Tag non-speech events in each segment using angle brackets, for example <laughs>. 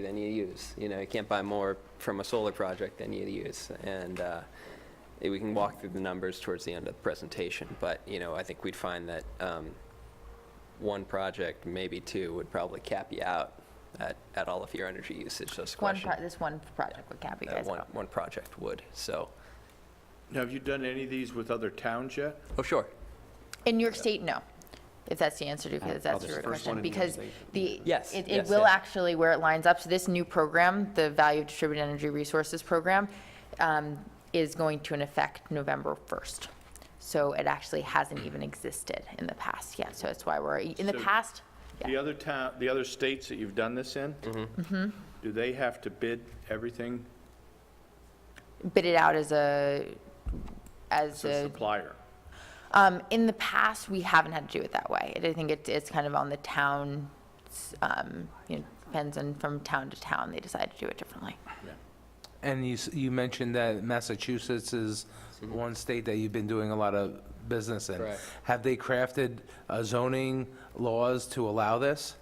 than you use. You know, you can't buy more from a solar project than you use. And uh, eh, we can walk through the numbers towards the end of the presentation, but, you know, I think we'd find that um, one project, maybe two, would probably cap you out at, at all of your energy usage, so it's a One, question. pro- this one project would cap you that guys One, out. one project would, so, Now, Have you done any of these with other towns yet? oh, sure. In New York State, no, if that's the answer to, Uh, because that's your the first one question. in New York Because the. Yes, It, it yes, will yes. actually, where it lines up, so this new program, the Value of Distributed Energy Resources Program, um, is going to in effect November 1st. So it actually hasn't even existed in the past yet, so that's why we're, in the So- past, The other town, the other states that you've done this in? Mm-hmm. Do they have to bid everything bid it out as a, as as a a supplier? Um, in the past, we haven't had to do it that way. I think it, it's kind of on the town, um, you know, depends on from town to town, they decide to do it differently. And you, s- you mentioned that Massachusetts is one state that you've been doing a lot of business in. Mm-hmm. Correct. Have they crafted uh, zoning laws to allow this?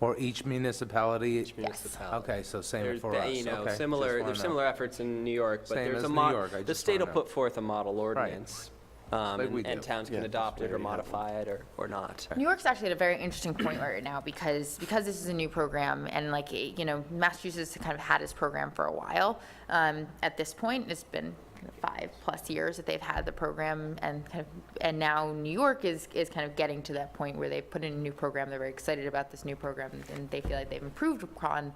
Or each municipality? Municipality. Okay, so same There's, for ba- us, okay. you know, just similar, wanna there's know. similar efforts in New York, but Same there's a as New mo, York, I the just state will wanna know. put forth a model ordinance. um, Like we And and do. towns can adopt it or modify it or, or not. New York's actually at a very interesting point right now because, because this is a new program and like, eh, you know, Massachusetts kind of had this program for a while. Um, at this point, it's been kind of five plus years that they've had the program and kind of, and now New York is, is kind of getting to that point where they put in a new program. They're very excited about this new program and they feel like they've improved upon,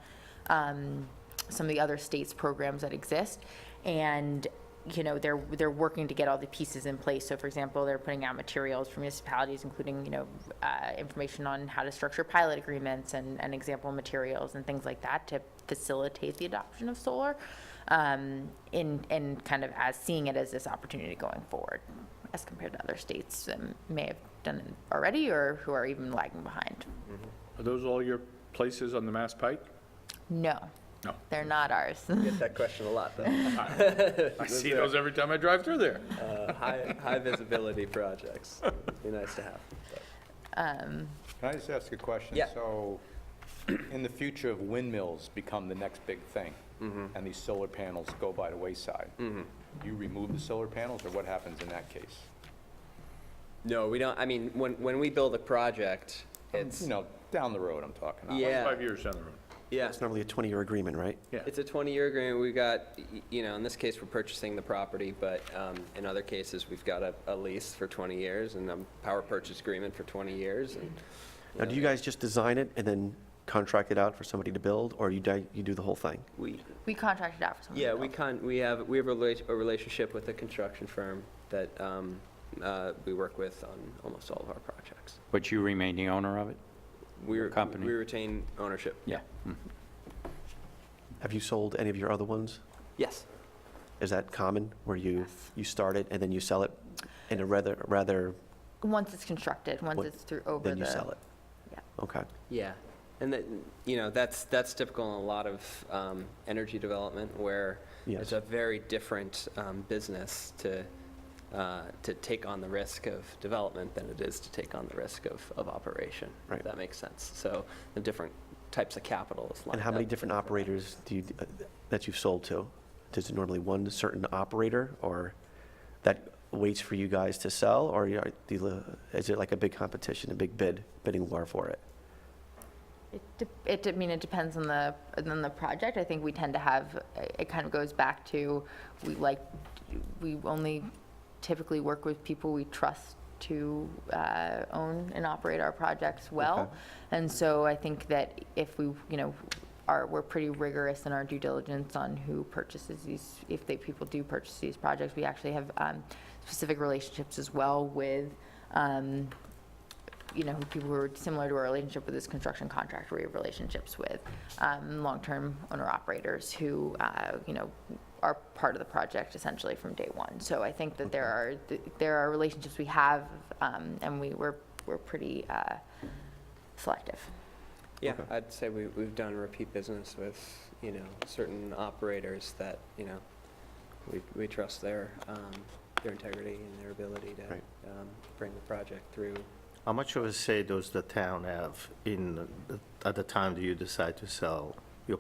um, some of the other states' programs that exist. And you know, they're, they're working to get all the pieces in place. So for example, they're putting out materials for municipalities, including, you know, uh, information on how to structure pilot agreements and, and example materials and things like that to facilitate the adoption of solar. Um, in, in kind of as seeing it as this opportunity going forward as compared to other states that may have done it already or who are even lagging behind. Are those all your places on the Mass Pike? No, No. they're not ours. <laughs> Get that question a lot, though. I see those every time I drive through there. Uh, High, high visibility projects, it'd be nice to have. Can I just ask a question? Yeah. So, in the future, if windmills become the next big thing, Mm-hmm. and these solar panels go by the wayside, you remove the solar panels, or what happens in that case? No, we don't, I mean, when, when we build a project, it's, You know, down the road, I'm talking about. Yeah. Five years down the road. yeah, It's normally a 20-year agreement, right? Yeah. it's a 20-year agreement, we got, y- you know, in this case, we're purchasing the property, but um, in other cases, we've got a, a lease for 20 years and a power purchase agreement for 20 years, and, Now, do you guys just design it and then contract it out for somebody to build, or you di- you do the whole thing? we, We contracted out for someone. to Yeah, we build. con, we have, we have a rela- a relationship with a construction firm that um, uh, we work with on almost all of our projects. But you remain the owner of it? We re- company. We retain ownership. Yeah. Have you sold any of your other ones? Yes. Is that common, where you, you start it and then you sell it in a rather, rather, Once it's constructed, once What- it's through over the. then you sell it? yeah. Okay. Yeah. And that, you know, that's, that's typical in a lot of um, energy development where it's Yes. a very different um, business to, uh, to take on the risk of development than it is to take on the risk of, of operation. if Right. That makes sense. So the different types of capital is lined And how many up. different operators do you, that you've sold to? Does it normally one certain operator, or that waits for you guys to sell, or you are- do you- is it like a big competition, a big bid, bidding war for it? It, dep- it, de- I mean, it depends on the, on the project. I think we tend to have, it kind of goes back to, we like, we only typically work with people we trust to uh, own and operate our projects well. And so I think that if we, you know, are, we're pretty rigorous in our due diligence on who purchases these, if they, people do purchase these projects. We actually have um, specific relationships as well with um, you know, people who are similar to our relationship with this construction contractor, we have relationships with um, long-term owner-operators who, uh, you know, are part of the project essentially from day one. So I think that there are, there are relationships we have, um, and we were, we're pretty uh, selective. Yeah, I'd say we, we've done repeat business with, you know, certain operators that, you know, we, we trust their, um, their integrity and their ability to, Right. um, bring the project through. How much of a say does the town have in, the- at the time do you decide to sell